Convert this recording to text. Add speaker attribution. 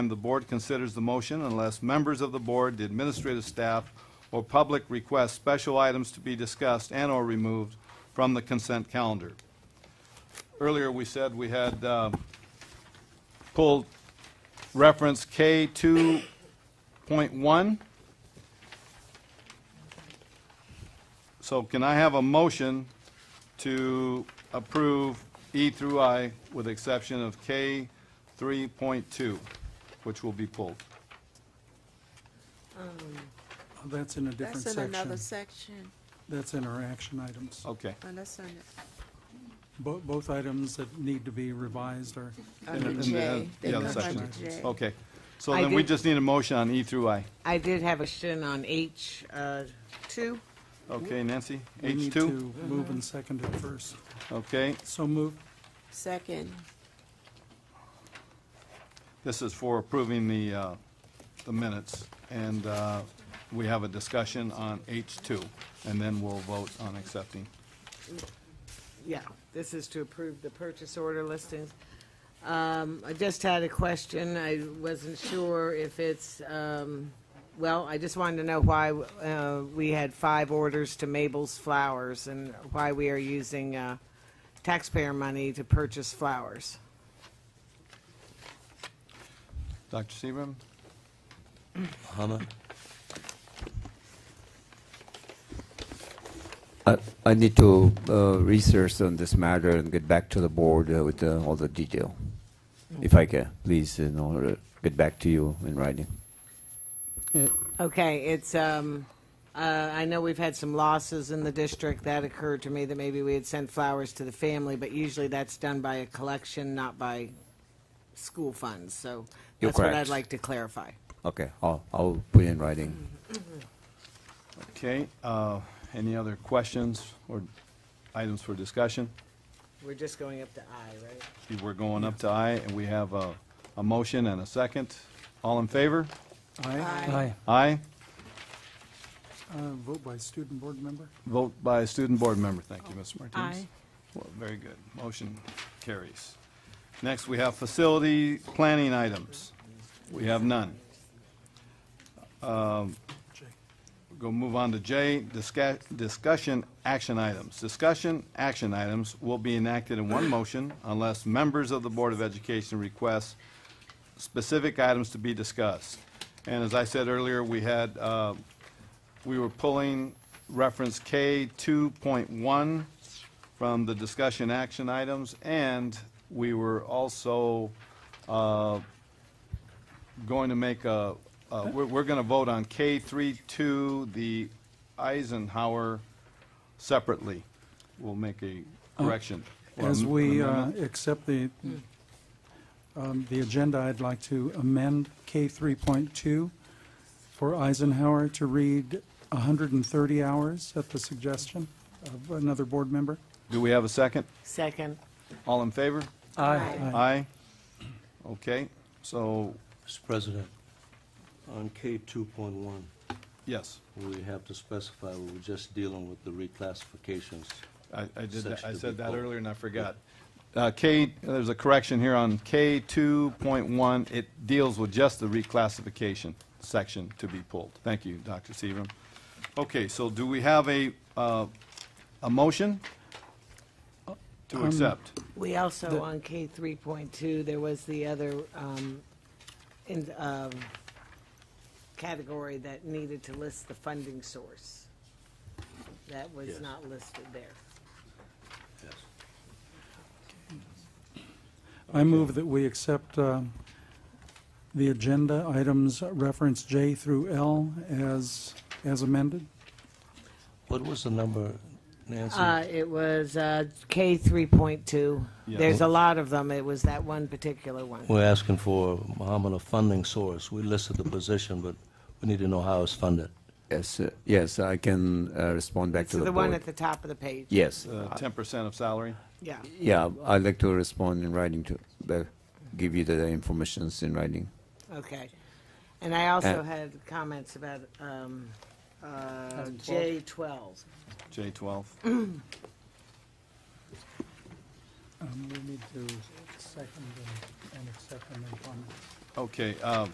Speaker 1: the board considers the motion unless members of the board, the administrative staff, or public request special items to be discussed and/or removed from the consent calendar. Earlier, we said we had uh, pulled reference K two point one. So can I have a motion to approve E through I with the exception of K 3.2, which will be pulled?
Speaker 2: Oh, That's in a different
Speaker 3: That's in another
Speaker 2: section.
Speaker 3: section,
Speaker 2: That's in our action items.
Speaker 1: Okay.
Speaker 3: and that's on the,
Speaker 2: Bo- Both items that need to be revised are,
Speaker 1: In
Speaker 3: under
Speaker 1: the-
Speaker 3: J. They
Speaker 1: yeah,
Speaker 3: come
Speaker 1: the
Speaker 3: under
Speaker 1: section. Oh.
Speaker 3: J.
Speaker 1: Okay. So
Speaker 4: I
Speaker 1: then we
Speaker 4: did-
Speaker 1: just need a motion on E through I.
Speaker 4: I did have a question on H, uh, two.
Speaker 1: Okay, Nancy?
Speaker 2: we need
Speaker 1: H2?
Speaker 2: to move and second it first.
Speaker 1: Okay.
Speaker 2: So move,
Speaker 3: Second,
Speaker 1: This is for approving the, uh, the minutes. And uh, we have a discussion on H2, and then we'll vote on accepting.
Speaker 4: Yeah, this is to approve the purchase order listings. Um, I just had a question. I wasn't sure if it's, um, well, I just wanted to know why, uh, we had five orders to Mabel's Flowers and why we are using, uh, taxpayer money to purchase flowers.
Speaker 1: Dr. Seaborn?
Speaker 5: I I need to uh, research on this matter and get back to the board uh, with uh, all the detail. If I can, please, in order, get back to you in writing.
Speaker 4: Okay, it's, um, uh, I know we've had some losses in the district. That occurred to me that maybe we had sent flowers to the family, but usually that's done by a collection, not by school funds. So
Speaker 5: You're
Speaker 4: that's what I'd
Speaker 5: correct.
Speaker 4: like to clarify.
Speaker 5: Okay, I'll, I'll put in writing.
Speaker 1: Okay. uh, Any other questions or items for discussion?
Speaker 4: We're just going up to I, right?
Speaker 1: We're going up to I, and we have a, a motion and a second. All in favor?
Speaker 2: aye.
Speaker 1: Aye.
Speaker 2: Uh, Vote by student board member.
Speaker 1: Vote by student board member. Thank you, Ms. Martinez.
Speaker 3: Aye.
Speaker 1: Well, Very good. Motion carries. Next, we have facility planning items. We have none. Um,
Speaker 2: Jay.
Speaker 1: Go move on to J, disca- discussion action items. Discussion action items will be enacted in one motion unless members of the Board of Education request specific items to be discussed. And as I said earlier, we had, uh, we were pulling reference K 2.1 from the discussion action items, and we were also uh, going to make a, uh, we're, we're going to vote on K 3.2, the Eisenhower separately. We'll make a correction. or
Speaker 2: Oh. As
Speaker 1: am- an
Speaker 2: we
Speaker 1: amendment.
Speaker 2: uh, accept the,
Speaker 3: Hmm.
Speaker 2: um, the agenda, I'd like to amend K 3.2 for Eisenhower to read 130 hours at the suggestion of another board member.
Speaker 1: Do we have a second?
Speaker 4: Second.
Speaker 1: All in favor?
Speaker 2: Aye.
Speaker 1: Aye. Okay, so,
Speaker 6: Mr. President, on K two point one,
Speaker 1: yes,
Speaker 6: we have to specify we were just dealing with the reclassifications.
Speaker 1: I, I did, that- I
Speaker 6: Section
Speaker 1: said that
Speaker 6: before.
Speaker 1: earlier and I forgot. Uh, K, there's a correction here on K two point one, it deals with just the reclassification section to be pulled. Thank you, Dr. Seaborn. Okay, so do we have a, uh, a motion to accept?
Speaker 4: We also, on K three point two, there was the other, um, in, um, category that needed to list the funding source. That was
Speaker 6: Yes.
Speaker 4: not listed there.
Speaker 6: Yes.
Speaker 2: I move that we accept um, the agenda items reference J through L as, as amended.
Speaker 6: What was the number, Nancy?
Speaker 4: Uh, it was, uh, K three point two.
Speaker 1: Yeah.
Speaker 4: There's a lot of them. It was that one particular one.
Speaker 6: We're asking for, Mohammed, a funding source. We listed the position, but we need to know how it's funded.
Speaker 5: Yes, uh, yes, I can uh, respond back
Speaker 4: It's
Speaker 5: to the
Speaker 4: the one
Speaker 5: board.
Speaker 4: at the top of the page.
Speaker 5: Yes,
Speaker 1: ten percent of salary?
Speaker 4: Yeah.
Speaker 5: yeah, I'd like to respond in writing to, back- give you the informations in writing.
Speaker 4: Okay. And I also
Speaker 5: Uh,
Speaker 4: had comments about, um, uh, J twelve.
Speaker 1: J twelve.
Speaker 2: Um, We need to second and accept them upon.
Speaker 1: Okay, uh,